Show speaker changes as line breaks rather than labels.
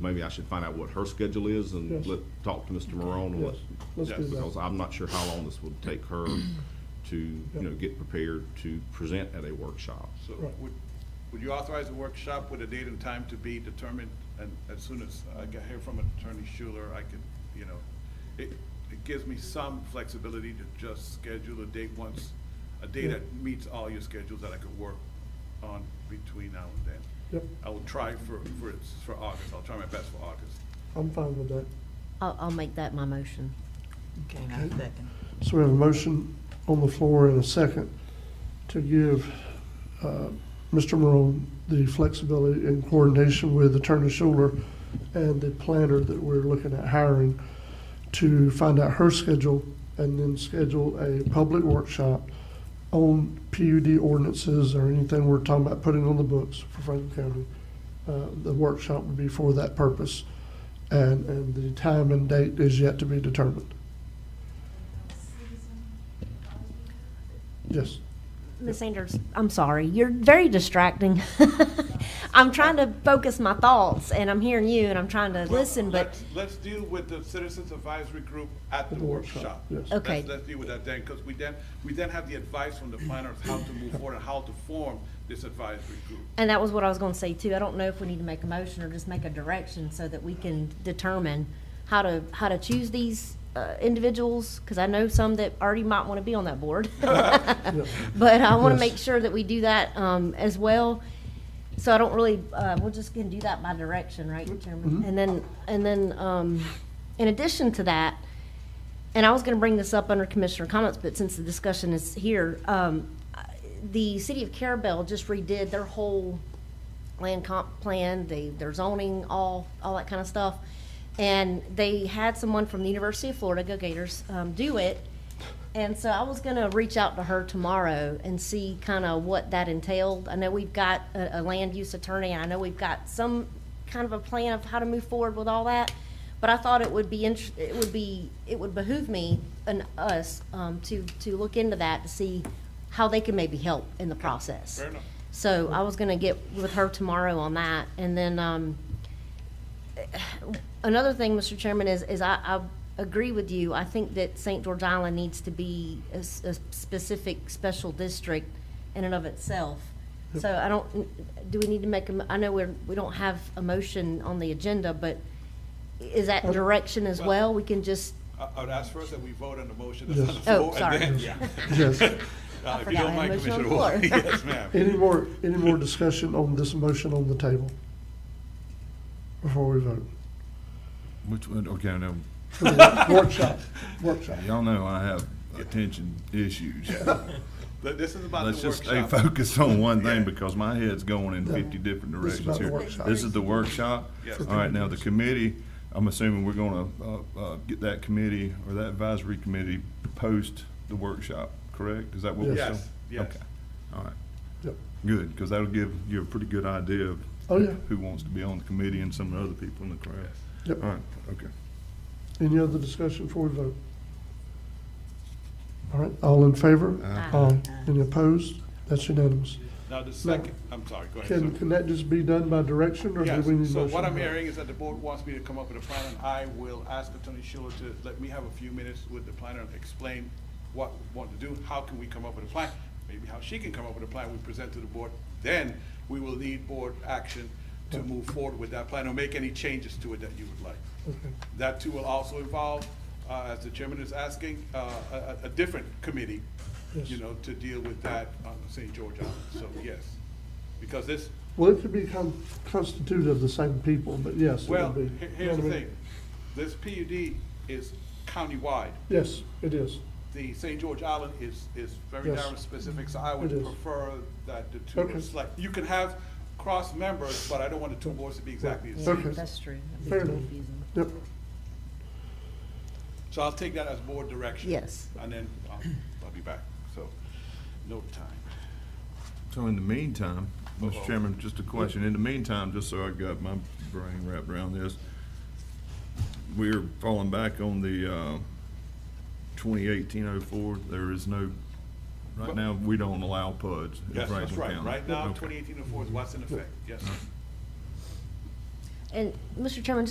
maybe I should find out what her schedule is and
Yes.
let, talk to Mr. Morone on what,
Yes, let's do
because
that.
I'm not sure how long this will take her to, you know, get prepared to present at a workshop.
So
Right.
would, would you authorize a workshop with a date and time to be determined? And as soon as I get here from Attorney Schuler, I can, you know, it, it gives me some flexibility to just schedule a date once, a day that meets all your schedules that I could work on between now and then.
Yep,
I will try for, for, for August. I'll try my best for August.
I'm fine with that.
I'll, I'll make that my motion.
Okay, now second.
So we have a motion on the floor and a second to give uh, Mr. Morone the flexibility in coordination with Attorney Schuler and the planner that we're looking at hiring to find out her schedule and then schedule a public workshop on PUD ordinances or anything we're talking about putting on the books for Franklin County. Uh, The workshop would be for that purpose, and, and the time and date is yet to be determined. Yes.
Ms. Sanders, I'm sorry, you're very distracting. I'm trying to focus my thoughts, and I'm hearing you, and I'm trying to
Well,
listen, but,
let's- Let's deal with the Citizens Advisory Group at the
At the workshop,
workshop.
yes.
Okay.
Let's- Let's deal with that then, because we then, we then have the advice from the planners how to move forward and how to form this advisory group.
and that was what I was gonna say too. I don't know if we need to make a motion or just make a direction so that we can determine how to, how to choose these, uh, individuals, because I know some that already might wanna be on that board. But I wanna
Yes.
make sure that we do that, um, as well. So I don't really, uh, we're just gonna do that by direction, right, Chairman? And then, and then, um, in addition to that, and I was gonna bring this up under Commissioner comments, but since the discussion is here, um, I- the city of Carabel just redid their whole land comp plan, they, their zoning, all, all that kind of stuff. And they had someone from the University of Florida, go Gators, um, do it. And so I was gonna reach out to her tomorrow and see kind of what that entailed. I know we've got a, a land use attorney, and I know we've got some kind of a plan of how to move forward with all that. But I thought it would be, int- it would be, it would behoove me and us, um, to, to look into that, to see how they can maybe help in the process.
Fair enough.
So I was gonna get with her tomorrow on that, and then, um, another thing, Mr. Chairman, is, is I, I agree with you. I think that St. George Island needs to be a, s- a specific special district in and of itself. So I don't, do we need to make, a mo- I know we're, we don't have a motion on the agenda, but is that direction as well? We can just,
I, I would ask first that we vote on the motion that's on the
Yes.
floor.
Oh,
and
sorry.
then- yeah.
Yes.
Uh, If you
forgot I
don't
had
mind,
a motion
Commissioner
on the
Ward.
floor.
Yes, ma'am.
Any more, any more discussion on this motion on the table? Before we vote?
Which one, okay, now,
Workshop, workshop.
y'all know I have attention issues.
Th- This is about
Let's
the
just stay
workshop.
focused on one thing because my head's going in fifty different directions
This is about the
here.
workshop.
This is the workshop.
Yes.
All right, now the committee, I'm assuming we're gonna, uh, uh, get that committee or that advisory committee post the workshop, correct? Is that what we're saying?
Yes, yes.
Okay, all right,
Yep.
good, because that'll give you a pretty good idea of
Oh, yeah.
who wants to be on the committee and some of the other people in the crowd.
Yep.
All right, okay.
Any other discussion before we vote? All right, all in favor?
Aye.
Aye. Any opposed? That's unanimous.
Now, the second, I'm sorry, go ahead.
Can,
sir.
can that just be done by direction, or do
Yes,
we need a motion?
so what I'm hearing is that the board wants me to come up with a plan, and I will ask Attorney Schuler to let me have a few minutes with the planner and explain what we want to do, how can we come up with a plan, maybe how she can come up with a plan we present to the board. Then we will need board action to move forward with that plan or make any changes to it that you would like.
Okay.
That too will also involve, uh, as the chairman is asking, uh, a, a- a different committee, you
Yes.
know, to deal with that on St. George Island, so yes. Because this,
Well, it could be con- constituted of the same people, but yes, it
well,
would be.
he- here's the thing, this PUD is countywide.
Yes, it is.
The St. George Island is, is very
Yes.
narrow and specific, so I would
It is.
prefer that the two,
Okay.
are like, you can have cross members, but I don't want the two boards to be exactly the
Yeah,
same.
Okay.
that's true.
Fair enough. Yep,
So I'll take that as board direction.
Yes.
And then I'll, I'll be back, so, no time.
So in the meantime,
Uh-oh.
Mr. Chairman, just a question. In the meantime, just so I got my brain wrapped around this, we're falling back on the, uh, twenty eighteen oh four. There is no, right now, we don't allow PUDs in
Yes, that's
Franklin
right,
County.
right now,
Okay.
twenty eighteen oh four is what's in effect, yes.
And, Mr. Chairman,